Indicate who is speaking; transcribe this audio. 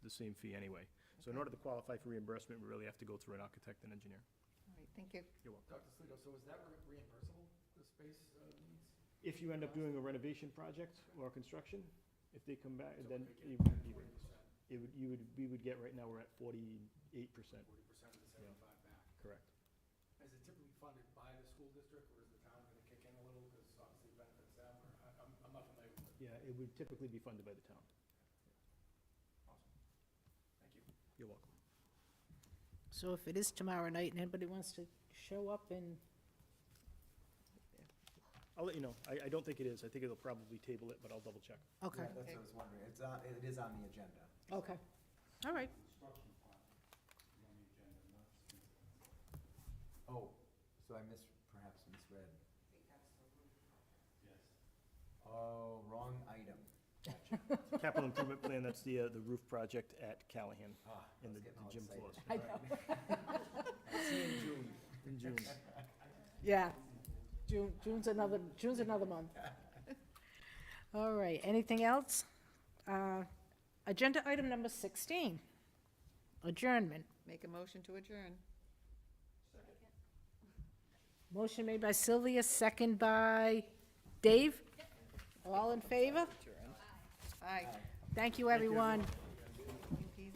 Speaker 1: same fee anyway. So in order to qualify for reimbursement, we really have to go through an architect and engineer.
Speaker 2: All right, thank you.
Speaker 1: You're welcome.
Speaker 3: Dr. Sligo, so is that re- reimbursable, the space uh, needs?
Speaker 1: If you end up doing a renovation project or construction, if they come back,
Speaker 3: So
Speaker 1: then
Speaker 3: we
Speaker 1: you,
Speaker 3: could get
Speaker 1: you-
Speaker 3: Forty percent,
Speaker 1: it would, you would, we would get, right now, we're at forty-eight percent,
Speaker 3: forty percent of the seventy-five back.
Speaker 1: correct?
Speaker 3: Is it typically funded by the school district, or is the town gonna kick in a little, because obviously it benefits them, or, I- I'm, I'm not familiar with it.
Speaker 1: Yeah, it would typically be funded by the town.
Speaker 3: Awesome. Thank you.
Speaker 1: You're welcome.
Speaker 2: So if it is tomorrow night and anybody wants to show up and,
Speaker 1: I'll let you know. I, I don't think it is. I think it'll probably table it, but I'll double check.
Speaker 2: okay,
Speaker 4: Yeah, That's what I was wondering. It's, on- it is on the agenda.
Speaker 2: okay, all right.
Speaker 4: Oh, so I mis, perhaps misread. Oh, wrong item.
Speaker 1: Capital Improvement Plan, that's the, uh, the roof project at Callahan
Speaker 4: Ah, I
Speaker 1: in
Speaker 4: was
Speaker 1: the
Speaker 4: getting
Speaker 1: the
Speaker 4: all
Speaker 1: gym
Speaker 4: excited.
Speaker 1: floors.
Speaker 2: I know,
Speaker 4: I'll see you in June.
Speaker 1: In June.
Speaker 2: yeah. June, June's another, June's another month. All right, anything else? Uh, Agenda item number 16, adjournment.
Speaker 5: Make a motion to adjourn.
Speaker 2: Motion made by Sylvia, second by Dave. All in favor?
Speaker 5: Aye.
Speaker 2: Thank you, everyone.